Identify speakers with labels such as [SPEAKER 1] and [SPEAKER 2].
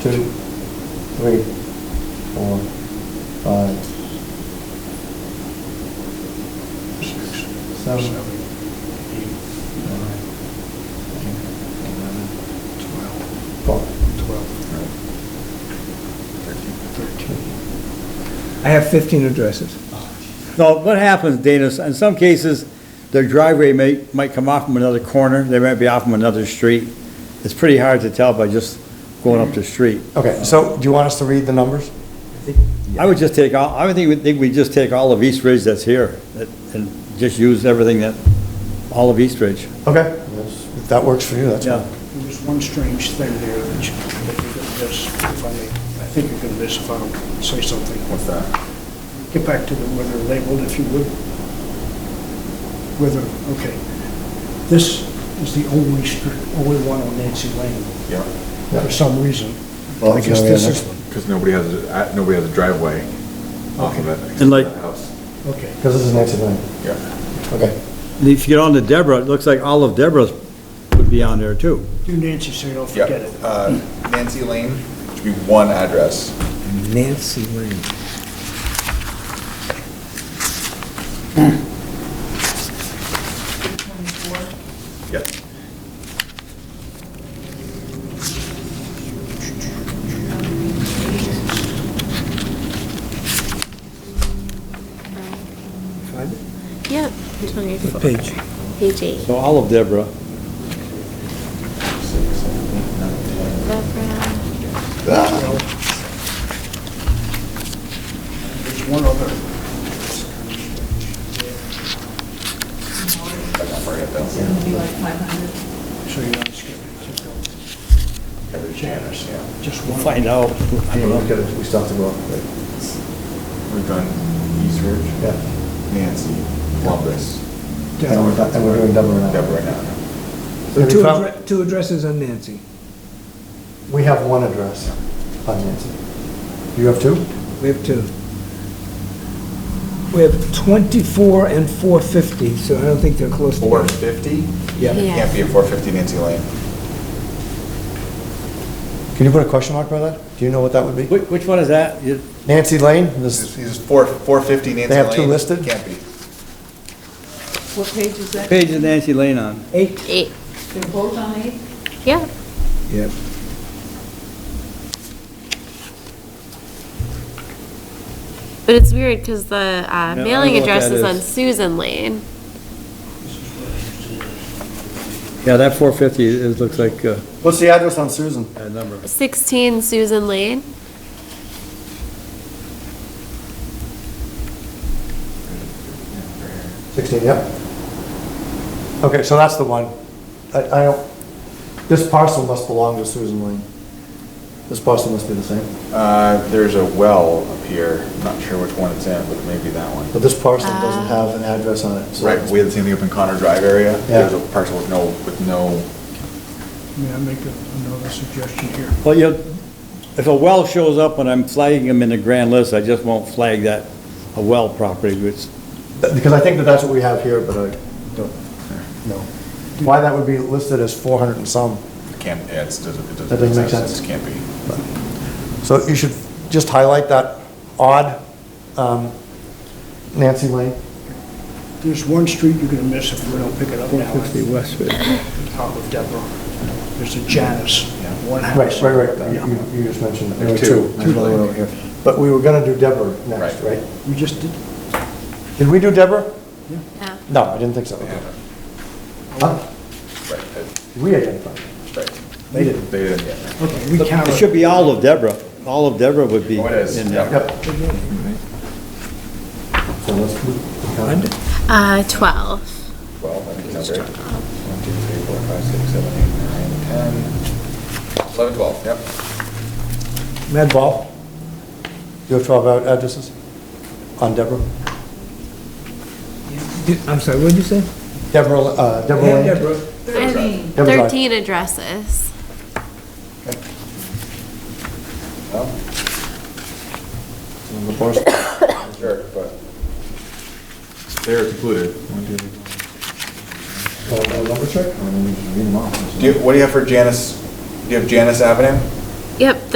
[SPEAKER 1] two, three, four, five,
[SPEAKER 2] Six,
[SPEAKER 1] Seven.
[SPEAKER 2] seven, eight,
[SPEAKER 1] nine, ten, eleven,
[SPEAKER 2] twelve,
[SPEAKER 1] twelve.
[SPEAKER 2] twelve, thirteen.
[SPEAKER 3] I have 15 addresses.
[SPEAKER 4] No, what happens, Dana, is in some cases, their driveway may, might come off from another corner, they might be off from another street. It's pretty hard to tell by just going up the street.
[SPEAKER 1] Okay, so do you want us to read the numbers?
[SPEAKER 4] I would just take all, I would think, we think we just take all of East Ridge that's here, that- and just use everything that, all of East Ridge.
[SPEAKER 1] Okay, that's- if that works for you, that's fine.
[SPEAKER 4] Yeah,
[SPEAKER 2] There's one strange thing there that you- that you're going to miss, if I may, I think you're going to miss if I don't say something. What's that? Get back to the, where they're labeled, if you would. Whether, okay. This is the only street, only one on Nancy Lane.
[SPEAKER 5] Yeah.
[SPEAKER 2] For some reason.
[SPEAKER 1] Well,
[SPEAKER 2] I
[SPEAKER 1] it's
[SPEAKER 2] guess
[SPEAKER 1] gonna be
[SPEAKER 2] this
[SPEAKER 1] the
[SPEAKER 2] is,
[SPEAKER 1] next
[SPEAKER 5] Because nobody has, a- uh, nobody has a driveway off of it. except
[SPEAKER 4] And like-
[SPEAKER 5] the house.
[SPEAKER 2] okay.
[SPEAKER 1] Because this is next to nine.
[SPEAKER 5] Yeah.
[SPEAKER 1] Okay,
[SPEAKER 4] and if you get on to Deborah, it looks like all of Deborah's would be on there too.
[SPEAKER 2] Do Nancy so you don't
[SPEAKER 6] Yep,
[SPEAKER 2] forget it.
[SPEAKER 6] uh, Nancy Lane, should be one address.
[SPEAKER 3] Nancy Lane.
[SPEAKER 6] Yep.
[SPEAKER 7] Yeah, it's on your
[SPEAKER 3] What page?
[SPEAKER 7] page eight.
[SPEAKER 4] So all of Deborah,
[SPEAKER 7] Background.
[SPEAKER 2] There's one other.
[SPEAKER 6] I got for it, though.
[SPEAKER 8] It'll be like 500.
[SPEAKER 2] So you're not skipping.
[SPEAKER 6] Every Janice, yeah.
[SPEAKER 2] Just
[SPEAKER 4] we'll
[SPEAKER 2] one.
[SPEAKER 4] find out. I don't know.
[SPEAKER 1] we still have to go up, right?
[SPEAKER 6] We've done East Ridge.
[SPEAKER 1] Yeah.
[SPEAKER 6] Nancy, Columbus,
[SPEAKER 1] And we're, and we're doing double or not.
[SPEAKER 6] Deborah now.
[SPEAKER 1] Have you
[SPEAKER 3] Two
[SPEAKER 1] found-
[SPEAKER 3] addre- two addresses on Nancy.
[SPEAKER 1] We have one address on Nancy. You have two?
[SPEAKER 3] We have two. We have 24 and 450, so I don't think they're close to.
[SPEAKER 6] Four fifty?
[SPEAKER 3] Yeah.
[SPEAKER 7] Yeah.
[SPEAKER 6] Can't be a four fifty Nancy Lane.
[SPEAKER 1] Can you put a question mark by that? Do you know what that would be?
[SPEAKER 4] Which, which one is that? You-
[SPEAKER 1] Nancy Lane, this,
[SPEAKER 6] This is four, four fifty Nancy Lane.
[SPEAKER 1] have two listed?
[SPEAKER 6] Can't be.
[SPEAKER 8] What page is that?
[SPEAKER 4] Page is Nancy Lane on?
[SPEAKER 3] Eight.
[SPEAKER 7] Eight,
[SPEAKER 8] They're both on eight?
[SPEAKER 7] yeah.
[SPEAKER 3] Yep.
[SPEAKER 7] But it's weird because the uh,
[SPEAKER 4] don't
[SPEAKER 7] mailing
[SPEAKER 4] know what
[SPEAKER 7] address
[SPEAKER 4] that
[SPEAKER 7] is on
[SPEAKER 4] is.
[SPEAKER 7] Susan Lane.
[SPEAKER 4] Yeah, that 450, it looks like uh,
[SPEAKER 1] what's the address on Susan?
[SPEAKER 4] a number.
[SPEAKER 7] 16 Susan Lane.
[SPEAKER 1] Sixteen, yep. Okay, so that's the one. I, I don't, this parcel must belong to Susan Lane. This parcel must be the same,
[SPEAKER 6] Uh, there's a well up here, not sure which one it's in, but maybe that one.
[SPEAKER 1] but this parcel doesn't have an address on it, so.
[SPEAKER 6] Right, we had the same thing up in Connor Drive area.
[SPEAKER 1] Yeah.
[SPEAKER 6] There's a parcel with no, with no
[SPEAKER 2] May I make a- another suggestion here?
[SPEAKER 4] Well, you, if a well shows up when I'm flagging them in the grand list, I just won't flag that a well property, which,
[SPEAKER 1] Because I think that that's what we have here, but I don't know. Why that would be listed as four hundred and some.
[SPEAKER 6] Can't, yeah, it's, doesn't- it doesn't.
[SPEAKER 1] That doesn't make sense.
[SPEAKER 6] It can't be.
[SPEAKER 1] So you should just highlight that odd um, Nancy Lane.
[SPEAKER 2] There's one street you're gonna miss if we don't pick it up now.
[SPEAKER 3] 450 Westford.
[SPEAKER 2] Top of Deborah. There's a Janus, one
[SPEAKER 1] Right,
[SPEAKER 2] house.
[SPEAKER 1] right, right, you, you just mentioned, there were
[SPEAKER 6] Two.
[SPEAKER 1] two, two that were over here. But we were gonna do Deborah next, right?
[SPEAKER 6] Right.
[SPEAKER 2] We just did,
[SPEAKER 1] Did we do Deborah?
[SPEAKER 7] Yeah.
[SPEAKER 1] No, I didn't think so. Huh?
[SPEAKER 6] Right,
[SPEAKER 1] Did we identify?
[SPEAKER 6] right.
[SPEAKER 1] They didn't.
[SPEAKER 6] They didn't, yeah.
[SPEAKER 2] okay, we
[SPEAKER 4] it
[SPEAKER 2] counted.
[SPEAKER 4] should be all of Deborah. All of Deborah would be
[SPEAKER 6] Oh, it is,
[SPEAKER 4] in
[SPEAKER 6] yeah.
[SPEAKER 4] there.
[SPEAKER 1] Yep. So let's move-
[SPEAKER 7] Uh, 12.
[SPEAKER 6] Well, I think it's number eight. One, two, three, four, five, six, seven, eight, nine, ten, eleven, twelve, yep.
[SPEAKER 1] Mad Ball, you have 12 ad- addresses on Deborah?
[SPEAKER 3] Did- I'm sorry, what did you say?
[SPEAKER 1] Deborah, uh, Deborah Lane?
[SPEAKER 3] Yeah, Deborah.
[SPEAKER 7] I have
[SPEAKER 8] 13.
[SPEAKER 1] That was right.
[SPEAKER 7] 13 addresses.
[SPEAKER 6] Well,
[SPEAKER 1] On the parcel.
[SPEAKER 6] Sure, but. They're included. Oh,
[SPEAKER 1] Uh, uh, Number check? I mean, you can read them off.
[SPEAKER 6] Do you, what do you have for Janice, do you have Janice Avenue?
[SPEAKER 7] Yep,